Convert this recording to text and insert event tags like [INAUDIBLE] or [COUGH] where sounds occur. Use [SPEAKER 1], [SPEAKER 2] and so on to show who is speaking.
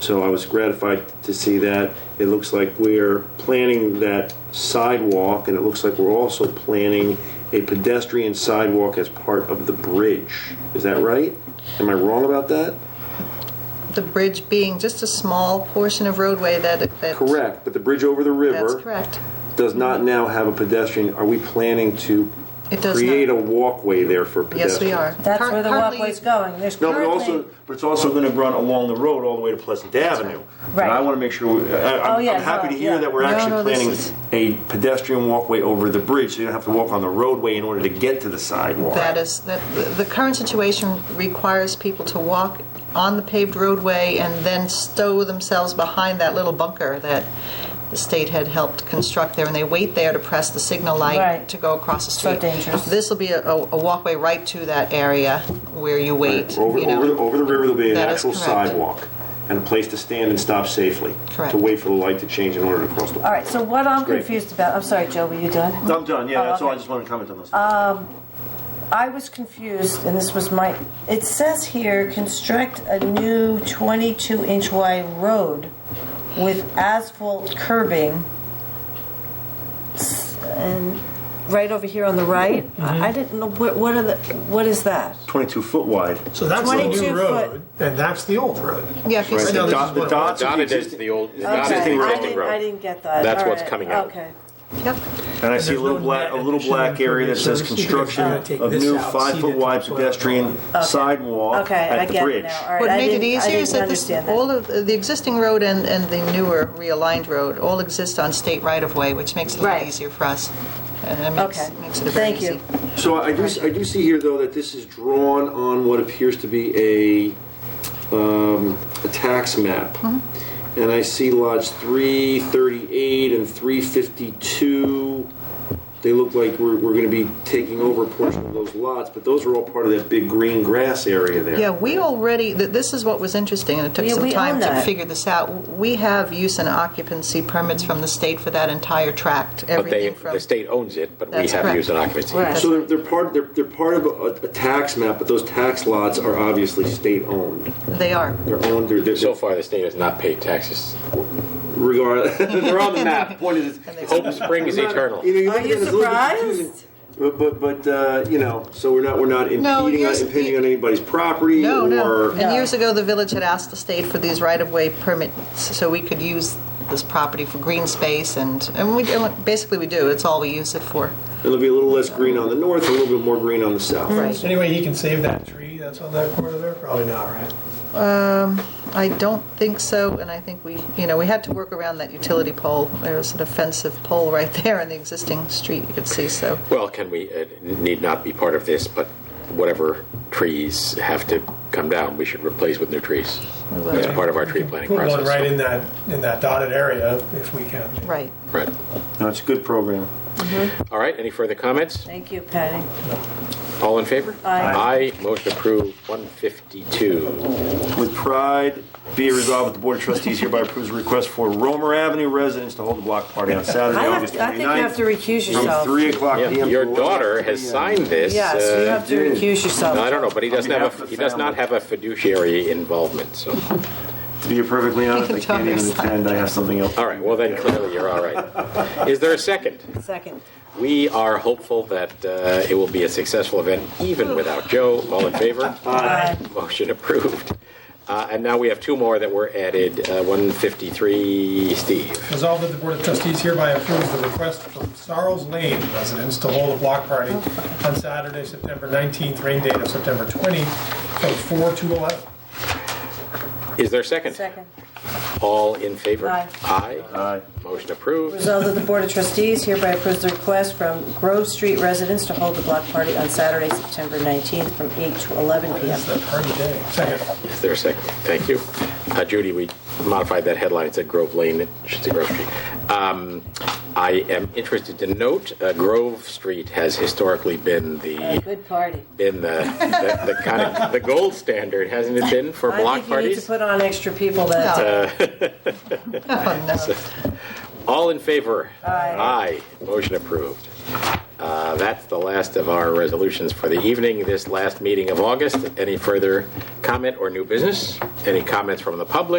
[SPEAKER 1] So I was gratified to see that. It looks like we're planning that sidewalk, and it looks like we're also planning a pedestrian sidewalk as part of the bridge. Is that right? Am I wrong about that?
[SPEAKER 2] The bridge being just a small portion of roadway that, that.
[SPEAKER 1] Correct, but the bridge over the
[SPEAKER 2] That's
[SPEAKER 1] river
[SPEAKER 2] correct.
[SPEAKER 1] does not now have a pedestrian. Are we planning to
[SPEAKER 2] It does
[SPEAKER 1] create a
[SPEAKER 2] not.
[SPEAKER 1] walkway there for pedestrians?
[SPEAKER 2] Yes, we are.
[SPEAKER 3] That's where the
[SPEAKER 2] Currently-
[SPEAKER 3] walkway's going. There's
[SPEAKER 1] No, but
[SPEAKER 3] currently.
[SPEAKER 1] also, but it's also going to run along the road all the way to Pleasant Avenue. And I
[SPEAKER 3] Right.
[SPEAKER 1] want to make sure, we- I- I'm
[SPEAKER 3] Oh, yeah,
[SPEAKER 1] I'm happy to
[SPEAKER 3] no,
[SPEAKER 1] hear
[SPEAKER 3] yeah.
[SPEAKER 1] that we're
[SPEAKER 2] No,
[SPEAKER 1] actually
[SPEAKER 2] no, this
[SPEAKER 1] planning
[SPEAKER 2] is-
[SPEAKER 1] a pedestrian walkway over the bridge, so you don't have to walk on the roadway in order to get to the sidewalk.
[SPEAKER 2] That is, that, the current situation requires people to walk on the paved roadway and then stow themselves behind that little bunker that the state had helped construct there, and they wait there to press the signal light
[SPEAKER 3] Right.
[SPEAKER 2] to go across the
[SPEAKER 3] So
[SPEAKER 2] street.
[SPEAKER 3] dangerous.
[SPEAKER 2] This will be a, a walkway right to that area where you wait,
[SPEAKER 1] Over,
[SPEAKER 2] you know.
[SPEAKER 1] over, the- over the river, there'll be an
[SPEAKER 2] That is
[SPEAKER 1] actual
[SPEAKER 2] correct.
[SPEAKER 1] sidewalk and a place to stand and stop safely.
[SPEAKER 2] Correct.
[SPEAKER 1] To wait for the light to change in order to cross the.
[SPEAKER 3] All right, so what I'm
[SPEAKER 1] Great.
[SPEAKER 3] confused about, I'm sorry, Joe, were you done?
[SPEAKER 1] I'm done, yeah,
[SPEAKER 3] Oh,
[SPEAKER 1] that's all, I
[SPEAKER 3] okay. Uh,
[SPEAKER 1] just wanted to comment on this.
[SPEAKER 3] I was confused, and this was my, it says here, construct a new 22-inch wide road with asphalt curbing. S- And right over here on the right, I I didn't know, what what are the, what is that?
[SPEAKER 1] Twenty-two foot wide.
[SPEAKER 4] So that's the
[SPEAKER 3] 22
[SPEAKER 4] new
[SPEAKER 3] foot.
[SPEAKER 4] road, and that's the old road.
[SPEAKER 2] Yeah, if you
[SPEAKER 1] Right,
[SPEAKER 2] see-
[SPEAKER 1] The
[SPEAKER 4] now this
[SPEAKER 1] dot-
[SPEAKER 4] is
[SPEAKER 1] the
[SPEAKER 4] what-
[SPEAKER 1] dots are the
[SPEAKER 5] Dotted is
[SPEAKER 1] existing-
[SPEAKER 5] the old, the
[SPEAKER 3] Okay,
[SPEAKER 1] I
[SPEAKER 5] dotted
[SPEAKER 1] think
[SPEAKER 5] is
[SPEAKER 1] we're
[SPEAKER 3] I
[SPEAKER 1] on
[SPEAKER 5] the old
[SPEAKER 3] didn't- I
[SPEAKER 5] road.
[SPEAKER 3] didn't get that.
[SPEAKER 5] That's
[SPEAKER 3] All
[SPEAKER 5] what's
[SPEAKER 3] right,
[SPEAKER 5] coming out.
[SPEAKER 3] Okay.
[SPEAKER 2] Yep.
[SPEAKER 1] And I see a
[SPEAKER 4] there's
[SPEAKER 1] little
[SPEAKER 4] no
[SPEAKER 1] black,
[SPEAKER 4] net
[SPEAKER 1] a little black
[SPEAKER 4] addition
[SPEAKER 1] area that
[SPEAKER 4] for
[SPEAKER 1] says
[SPEAKER 4] this.
[SPEAKER 1] construction
[SPEAKER 4] You could take
[SPEAKER 1] of
[SPEAKER 4] this
[SPEAKER 1] new
[SPEAKER 4] out,
[SPEAKER 1] five
[SPEAKER 4] see
[SPEAKER 1] foot
[SPEAKER 4] the
[SPEAKER 1] wide
[SPEAKER 4] topsoil.
[SPEAKER 1] pedestrian sidewalk
[SPEAKER 3] Okay, I
[SPEAKER 1] at the
[SPEAKER 3] get it
[SPEAKER 1] bridge.
[SPEAKER 3] now. All right,
[SPEAKER 2] What
[SPEAKER 3] I
[SPEAKER 2] made it
[SPEAKER 3] didn't- I
[SPEAKER 2] easier is
[SPEAKER 3] didn't
[SPEAKER 2] that this,
[SPEAKER 3] understand that.
[SPEAKER 2] all of, the existing road and, and the newer realigned road all exist on state right-of-way, which makes it a lot
[SPEAKER 3] Right.
[SPEAKER 2] easier for us. And that
[SPEAKER 3] Okay,
[SPEAKER 2] makes, makes it a very
[SPEAKER 3] thank
[SPEAKER 2] easy.
[SPEAKER 3] you.
[SPEAKER 1] So I do, I do see here though that this is drawn on what appears to be a, um, a tax map.
[SPEAKER 3] Mm-hmm.
[SPEAKER 1] And I see lots three thirty-eight and three fifty-two. They look like we're, we're gonna be taking over a portion of those lots, but those are all part of that big green grass area there.
[SPEAKER 2] Yeah, we already, th- this is what was interesting, and it took
[SPEAKER 3] Yeah, we
[SPEAKER 2] some time
[SPEAKER 3] own
[SPEAKER 2] to
[SPEAKER 3] that.
[SPEAKER 2] figure this out. We have use and occupancy permits from the state for that entire tract,
[SPEAKER 5] But they,
[SPEAKER 2] everything from...
[SPEAKER 5] the state owns it, but we
[SPEAKER 2] That's correct.
[SPEAKER 5] have used an occupancy.
[SPEAKER 3] Right.
[SPEAKER 1] So they're, they're part, they're, they're part of a, a tax map, but those tax lots are obviously state-owned.
[SPEAKER 2] They are.
[SPEAKER 1] They're owned, they're, they're
[SPEAKER 5] So far, the state has not paid taxes.
[SPEAKER 1] regard, [LAUGHS] they're on the map. Point is, it's-
[SPEAKER 5] Hope springs eternal.
[SPEAKER 1] You know, you
[SPEAKER 3] Are
[SPEAKER 1] look at
[SPEAKER 3] you
[SPEAKER 1] it, it's a little confusing.
[SPEAKER 3] surprised?
[SPEAKER 1] But, but, but uh, you know, so we're not, we're not
[SPEAKER 2] No,
[SPEAKER 1] impeding, on-
[SPEAKER 2] here's-
[SPEAKER 1] impinging on anybody's property
[SPEAKER 2] No, no.
[SPEAKER 1] or.
[SPEAKER 2] And years ago, the village had asked the state for these right-of-way permits so we could use this property for green space, and, and we, and basically we do, it's all we use it for.
[SPEAKER 1] It'll be a little less green on the north, a little bit more green on the south.
[SPEAKER 2] Right.
[SPEAKER 4] Anyway, he can save that tree that's on that corner there? Probably not, right?
[SPEAKER 2] I don't think so, and I think we, you know, we had to work around that utility pole. There was an offensive pole right [LAUGHS] there in the existing street, you could see, so.
[SPEAKER 5] Well, can we, it need not be part of this, but whatever trees have to come down, we should replace with new trees. That's part of our tree planting
[SPEAKER 4] Put one
[SPEAKER 5] process.
[SPEAKER 4] right in that, in that dotted area if we can.
[SPEAKER 2] Right.
[SPEAKER 5] Right.
[SPEAKER 1] No, it's a good program.
[SPEAKER 5] All right, any further comments?
[SPEAKER 3] Thank you, Patty.
[SPEAKER 5] All in favor?
[SPEAKER 3] Aye.
[SPEAKER 5] Aye, motion approved, 152.
[SPEAKER 1] With pride, be it resolved that the Board of Trustees hereby approves a request for Romer Avenue residents to hold a block party on Saturday,
[SPEAKER 3] I have-
[SPEAKER 1] August 29th.
[SPEAKER 3] I think you have to recuse yourself.
[SPEAKER 1] From 3 o'clock
[SPEAKER 5] Yeah,
[SPEAKER 1] PM. to
[SPEAKER 5] Your
[SPEAKER 1] 11
[SPEAKER 5] daughter has
[SPEAKER 1] PM.
[SPEAKER 5] signed this.
[SPEAKER 3] Yes,
[SPEAKER 5] uh,
[SPEAKER 3] you have to
[SPEAKER 1] dude.
[SPEAKER 3] recuse yourself.
[SPEAKER 5] No, I don't know, but he doesn't
[SPEAKER 1] On behalf
[SPEAKER 5] have,
[SPEAKER 1] of
[SPEAKER 5] a
[SPEAKER 1] the
[SPEAKER 5] he does not
[SPEAKER 1] family.
[SPEAKER 5] have a fiduciary involvement, so,
[SPEAKER 1] To be perfectly honest, I
[SPEAKER 2] Your
[SPEAKER 1] can't even
[SPEAKER 2] daughter's
[SPEAKER 1] attend, I have something else.
[SPEAKER 5] all right, well then clearly you're all right. Is there a second?
[SPEAKER 3] Second.
[SPEAKER 5] We are hopeful that uh, it will be a successful event even without Joe. All in favor?
[SPEAKER 3] Aye.
[SPEAKER 5] Motion approved. Uh, And now we have two more that were added, uh, 153, Steve.
[SPEAKER 4] Resolved that the Board of Trustees hereby approves the request from Sarles Lane residents to hold a block party on Saturday, September 19th, rain date of September 20, from 4 to 11.
[SPEAKER 5] Is there a second?
[SPEAKER 3] Second.
[SPEAKER 5] All in favor?
[SPEAKER 3] Aye.
[SPEAKER 5] Aye. Motion approved.
[SPEAKER 3] Resolved that the Board of Trustees hereby approves the request from Grove Street residents to hold a block party on Saturday, September 19th, from 8 to 11 p.m.
[SPEAKER 4] It's the party day. Second.
[SPEAKER 5] Is there a second? Thank you. Uh, Judy, we modified that headline. It said Grove Lane, it should say Grove Street. Um, I am interested to note, uh, Grove Street has historically been the
[SPEAKER 3] A good party.
[SPEAKER 5] been the, the, the kind of the gold standard, hasn't it been for
[SPEAKER 3] I
[SPEAKER 5] block
[SPEAKER 3] think you need to
[SPEAKER 5] parties?
[SPEAKER 3] put on extra people that day.
[SPEAKER 2] Oh, no.
[SPEAKER 5] All in favor?
[SPEAKER 3] Aye.
[SPEAKER 5] Aye. Motion approved. Uh, that's the last of our resolutions for the evening. This last meeting of August. Any further comment or new business? Any comments from the public?